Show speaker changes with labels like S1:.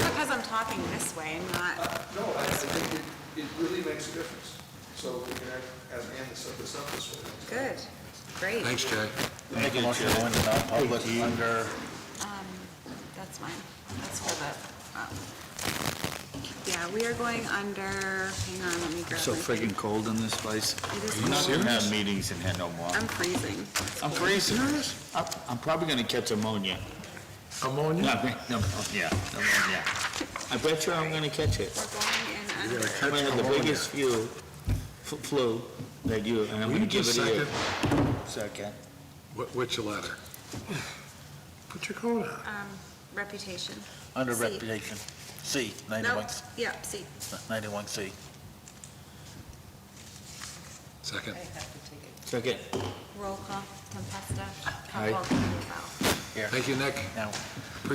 S1: talking this way and not,
S2: Uh, No, I, I think it, it really makes a difference. So we can, act- as Amanda set this up this way.
S1: good, great,
S3: Thanks, Jay.
S4: Make a motion to go into non-public under,
S1: that's mine, that's for the, um, yeah, we are going under, hang on, let me grab
S5: So
S1: my.
S5: friggin' cold in this place.
S1: It is
S4: we're not gonna
S1: cold.
S4: have meetings and had no more.
S1: I'm freezing.
S4: I'm freezing. I'm, I'm probably gonna catch ammonia.
S3: Ammonia?
S4: Not me- no, oh, Yeah, ammonia. I bet you I'm gonna catch it.
S1: We're going in under.
S4: I'm gonna have the biggest flu, f- flu that you, and I'm
S3: Will you
S4: gonna give it
S3: just
S4: to you.
S3: second?
S4: Second.
S3: Wh- Which letter? Put your coat on.
S1: Um, reputation.
S4: Under
S1: C.
S4: reputation, C,
S1: No,
S4: ninety-one,
S1: yep, see,
S4: ninety-one C.
S3: Second.
S4: Second.
S1: roll call, Tempesta,
S4: Aye.
S1: Capone, Duval.
S4: Here,
S3: Thank you, Nick.
S4: now.